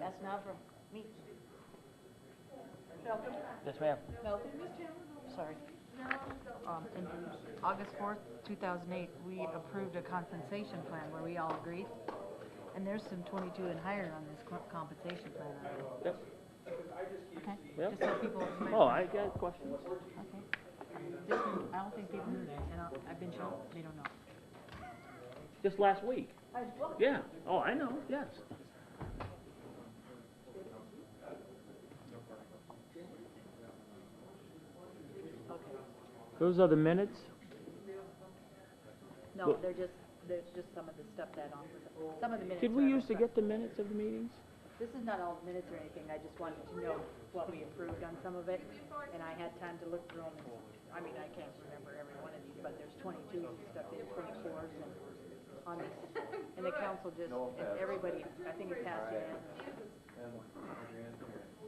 That's not from me. Malcolm? Yes, ma'am. Malcolm? Sorry. Um, in August fourth, two thousand eight, we approved a compensation plan where we all agreed. And there's some twenty-two and higher on this co- compensation plan already. Yep. Okay? Yep. Just so people. Oh, I got questions. Okay. This one, I don't think people knew that, and I- I've been shown, they don't know. Just last week. Yeah. Oh, I know. Yes. Okay. Those are the minutes. No, Look. they're just, there's just some of the stuff that on, some of the minutes. Did are we used to different. get the minutes of the meetings? This is not all minutes or anything, I just wanted to know what we approved on some of it, and I had time to look through them. I mean, I can't remember every one of these, but there's twenty-twos and stuff, there's twenty-fours and on this. And the council just, and everybody, I think it passed unanimously.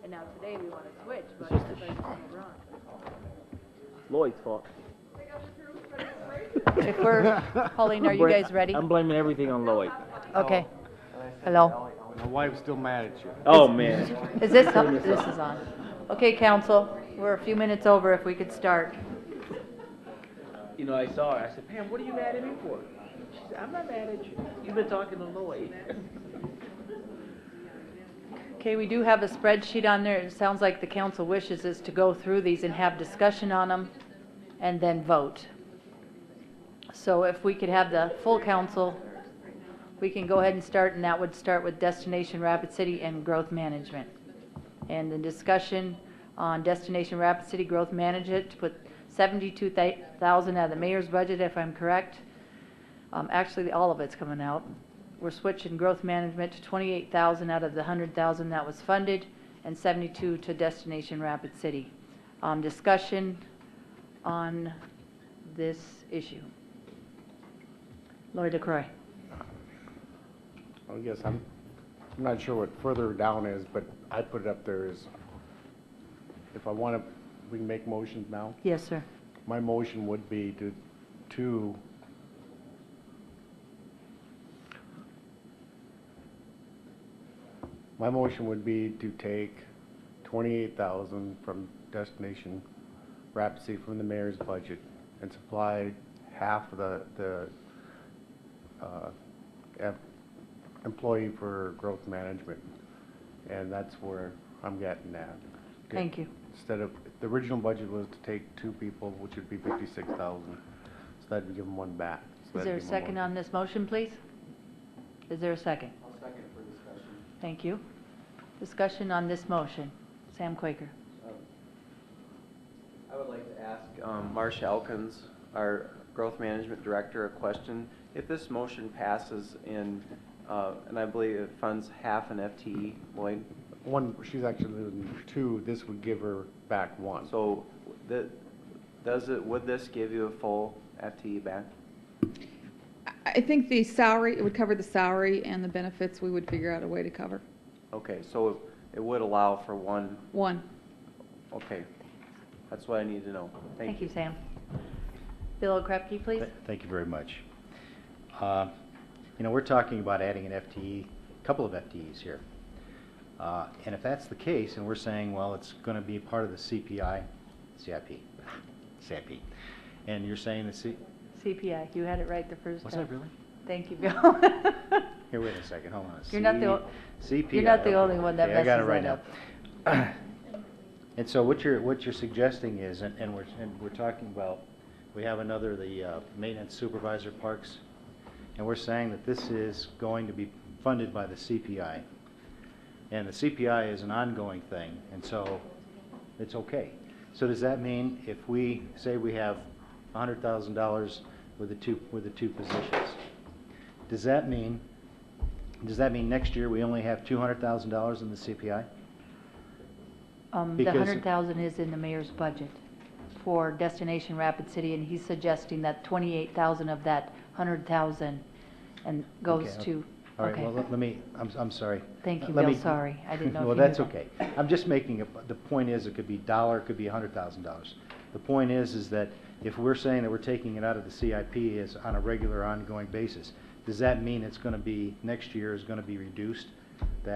And now today we wanna switch, but just a everybody's gonna run. Lloyd's fault. If we're, Pauline, are you guys ready? I'm blaming everything on Lloyd. Okay. Hello? My wife's still mad at you. Oh man. Is this, this is on. Okay, council, we're a few minutes over, if we could start. You know, I saw her. I said, Pam, what are you mad at me for? She said, I'm not mad at you. You've been talking to Lloyd. Okay, we do have a spreadsheet on there. It sounds like the council wishes is to go through these and have discussion on them and then vote. So if we could have the full council, we can go ahead and start, and that would start with Destination Rapid City and Growth Management. And the discussion on Destination Rapid City Growth Management, to put 72,000 out of the mayor's budget, if I'm correct. Um, actually, all of it's coming out. We're switching growth management to twenty-eight thousand out of the hundred thousand that was funded, and seventy-two to Destination Rapid City. Um, discussion on this issue. Lori DeCroy. I guess I'm, I'm not sure what further down is, but I put it up there is, if I want to, we can make motions now. Yes, sir. My motion would be to, to my motion would be to take twenty-eight thousand from Destination Rapid City from the mayor's budget and supply half of the, the, uh, em- employee for growth management. And that's where I'm getting at. Thank you. Instead of, the original budget was to take two people, which would be fifty-six thousand. So that'd give them one back. So Is that'd there a give 'em one. second on this motion, please? Is there a second? I'll second for discussion. Thank you. Discussion on this motion. Sam Quaker. Um, I would like to ask um, Marsh Elkins, our Growth Management Director, a question. If this motion passes in, uh, and I believe it funds half an FTE, Lloyd, One, she's actually losing two, this would give her back one. so the- does it, would this give you a full FTE back? I- I think the salary, it would cover the salary and the benefits, we would figure out a way to cover. Okay, so it would allow for one, One. okay. That's what I need to know. Thank Thank you. you, Sam. Bill O'Krepke, please. Th- Thank you very much. Uh, You know, we're talking about adding an FTE, a couple of FTEs here. Uh, And if that's the case, and we're saying, well, it's going to be part of the CPI, CIP, CIP, and you're saying the C, CPI, you had it right the first time. was that really? Thank you, Bill. Here, wait a second, hold on. You're not the o- C- CPI. you're not the okay. only one that Okay, I got it messes right that now. And so what you're, what you're suggesting is, and and we're, and we're talking about, we have another, the uh, maintenance supervisor parks, and we're saying that this is going to be funded by the CPI. And the CPI is an ongoing thing, and so it's okay. So does that mean if we say we have hundred thousand dollars with the two, with the two positions, does that mean, does that mean next year we only have two hundred thousand dollars in the CPI? Um, the Because- hundred thousand is in the mayor's budget for Destination Rapid City, and he's suggesting that twenty-eight thousand of that hundred thousand and goes Okay, to, All right, okay. well, let let me, I'm, I'm sorry. Thank Uh, you, let Bill. me- Sorry. I didn't know if Well, you knew that's that. okay. I'm just making, a- the point is, it could be dollar, it could be a hundred thousand dollars. The point is, is that if we're saying that we're taking it out of the CIP is on a regular ongoing basis, does that mean it's gonna be, next year is gonna be reduced? That